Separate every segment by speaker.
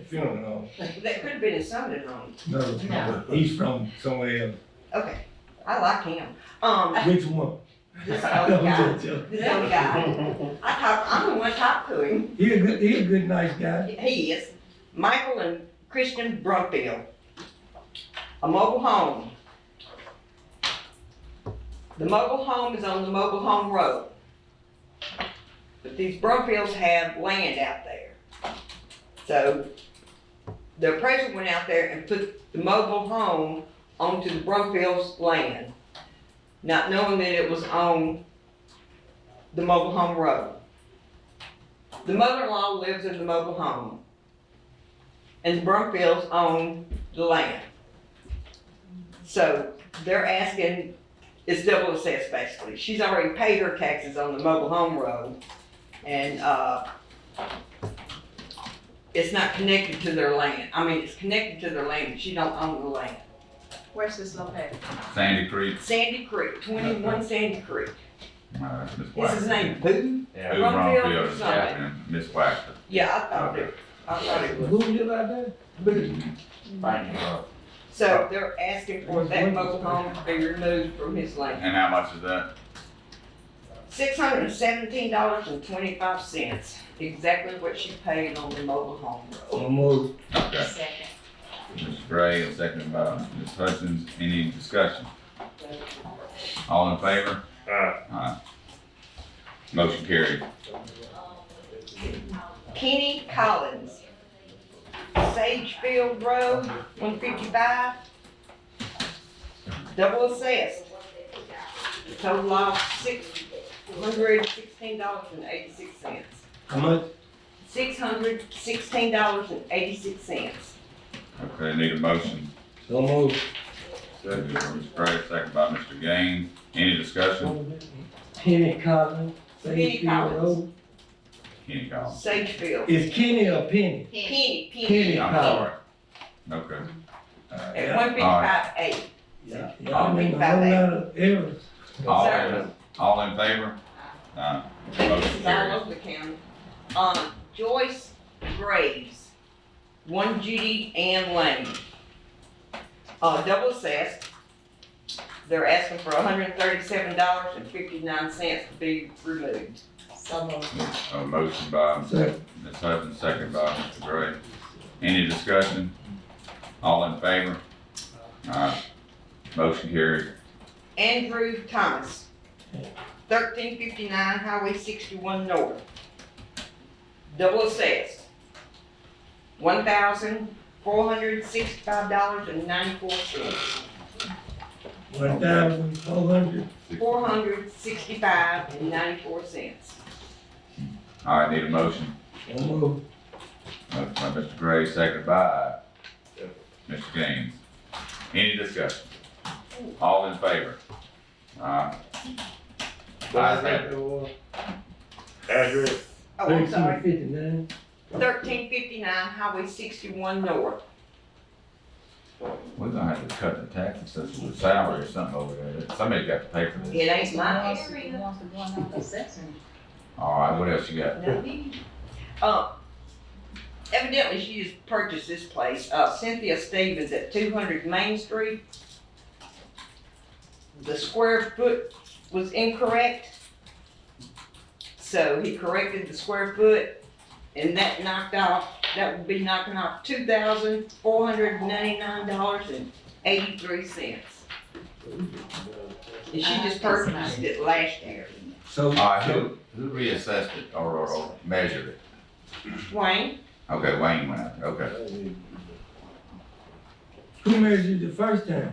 Speaker 1: funeral home.
Speaker 2: That could have been his son-in-law.
Speaker 1: No, it's not. he's from somewhere else.
Speaker 2: Okay, I like him. Um,
Speaker 1: Which one?
Speaker 2: this
Speaker 1: I'm
Speaker 2: other guy,
Speaker 1: just joking.
Speaker 2: this other guy. I talk, I'm the one talk to him.
Speaker 1: He a good, he a good, nice guy.
Speaker 2: He is Michael and Christian Brumfield. A mobile home. The mobile home is on the mobile home road. But these Brumfields have land out there. So the appraiser went out there and put the mobile home onto the Brumfields' land, not knowing that it was on the mobile home road. The mother-in-law lives in the mobile home. And the Brumfields own the land. So they're asking, it's double assessed basically. She's already paid her taxes on the mobile home road. And, uh, it's not connected to their land. I mean, it's connected to their land, but she don't own the land.
Speaker 3: Where's this located?
Speaker 4: Sandy Creek.
Speaker 2: Sandy Creek, twenty-one Sandy Creek.
Speaker 4: uh, Miss
Speaker 2: Is his
Speaker 4: Waxman.
Speaker 2: name Boo?
Speaker 4: Who
Speaker 2: Ron
Speaker 4: wrong
Speaker 2: Field,
Speaker 4: field,
Speaker 2: sorry.
Speaker 4: Captain, Miss Waxman.
Speaker 2: Yeah, I thought it, I thought it was
Speaker 1: Who live out there?
Speaker 2: Boo.
Speaker 5: Thank you, Rob.
Speaker 2: So they're asking for that mobile home to be removed from his land.
Speaker 4: And how much is that?
Speaker 2: Six hundred and seventeen dollars and twenty-five cents, exactly what she paid on the mobile home road.
Speaker 1: Or more?
Speaker 4: Okay.
Speaker 3: Second.
Speaker 4: Ms. Gray, and second by Ms. Hutchins. Any discussion? All in favor?
Speaker 5: Aye.
Speaker 4: Aye. Motion carried.
Speaker 2: Kenny Collins, Sagefield Road, one fifty-five. Double assessed. Total loss, six hundred and sixteen dollars and eighty-six cents.
Speaker 1: How much?
Speaker 2: Six hundred sixteen dollars and eighty-six cents.
Speaker 4: Okay, need a motion.
Speaker 1: So more.
Speaker 4: Moved by Ms. Gray, second by Mr. Gaines. Any discussion?
Speaker 1: Kenny Collins.
Speaker 2: Kenny
Speaker 1: Sagefield
Speaker 2: Collins.
Speaker 1: Road.
Speaker 4: Kenny Collins.
Speaker 2: Sagefield,
Speaker 1: Is Kenny or Penny?
Speaker 2: Penny, Penny.
Speaker 1: Kenny
Speaker 4: I'm
Speaker 1: Collins.
Speaker 4: sorry. Okay. Uh,
Speaker 2: At one fifty-five eight.
Speaker 1: Yeah,
Speaker 2: I'll
Speaker 1: I mean,
Speaker 2: think
Speaker 1: a
Speaker 2: about
Speaker 1: whole
Speaker 2: that.
Speaker 1: lot of errors.
Speaker 4: All
Speaker 2: Sorry.
Speaker 4: in, all in favor? Aye.
Speaker 2: This
Speaker 4: Motion
Speaker 2: is all
Speaker 4: carried.
Speaker 2: over the county. Um, Joyce Graves, one Judy Ann Lane. Uh, double assessed. They're asking for hundred and thirty-seven dollars and fifty-nine cents to be removed.
Speaker 3: So moved.
Speaker 4: A motion by
Speaker 1: So,
Speaker 4: Ms. Hutchins, second by Mr. Gray. Any discussion? All in favor? Aye. Motion carried.
Speaker 2: Andrew Thomas, thirteen fifty-nine Highway sixty-one North. Double assessed, one thousand four hundred sixty-five dollars and ninety-four cents.
Speaker 1: one thousand four hundred.
Speaker 2: four hundred sixty-five and ninety-four cents.
Speaker 4: All right, need a motion.
Speaker 1: So more.
Speaker 4: Motion by Mr. Gray, second by Mr. Gaines. Any discussion? All in favor? Aye. Ayes have it.
Speaker 5: Address.
Speaker 2: Oh, I'm sorry,
Speaker 1: Thirteen fifty-nine.
Speaker 2: thirteen fifty-nine Highway sixty-one North.
Speaker 4: We're gonna have to cut the taxes, since the salary or something over there. Somebody's got to pay for this.
Speaker 2: It ain't mine.
Speaker 4: All right, what else you got?
Speaker 2: Uh, evidently she just purchased this place, uh, Cynthia Stevens at two hundred Main Street. The square foot was incorrect. So he corrected the square foot and that knocked off, that would be knocking off two thousand four hundred ninety-nine dollars and eighty-three cents. And she just purchased it last year.
Speaker 1: So.
Speaker 4: All right, who, who reassessed it or, or- or measured it?
Speaker 2: Wayne,
Speaker 4: Okay, Wayne went out there, okay.
Speaker 1: Who measured the first time?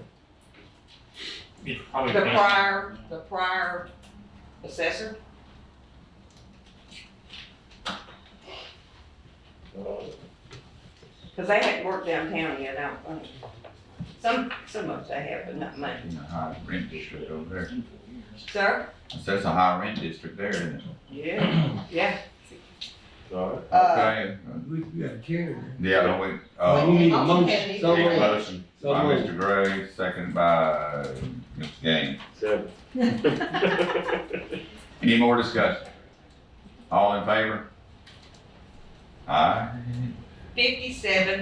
Speaker 5: It's probably.
Speaker 2: the prior, the prior assessor? Cause they hadn't worked downtown yet, I don't think. Some, some of us they have, but not mine.
Speaker 4: You know, high rent district over there.
Speaker 2: Sir?
Speaker 4: So That's a high rent district there, isn't it?
Speaker 2: Yeah. Yeah.
Speaker 5: Alright.
Speaker 2: Uh,
Speaker 4: Okay.
Speaker 1: We, we got Karen.
Speaker 4: Yeah, don't we,
Speaker 1: We
Speaker 4: uh,
Speaker 1: need a
Speaker 3: Motion
Speaker 1: motion.
Speaker 3: carries.
Speaker 1: So
Speaker 4: need a
Speaker 1: moved.
Speaker 4: motion
Speaker 1: So
Speaker 4: by
Speaker 1: moved.
Speaker 4: Mr. Gray, second by Mr. Gaines.
Speaker 5: Seven.
Speaker 4: Any more discussion? All in favor? Aye.
Speaker 2: fifty-seven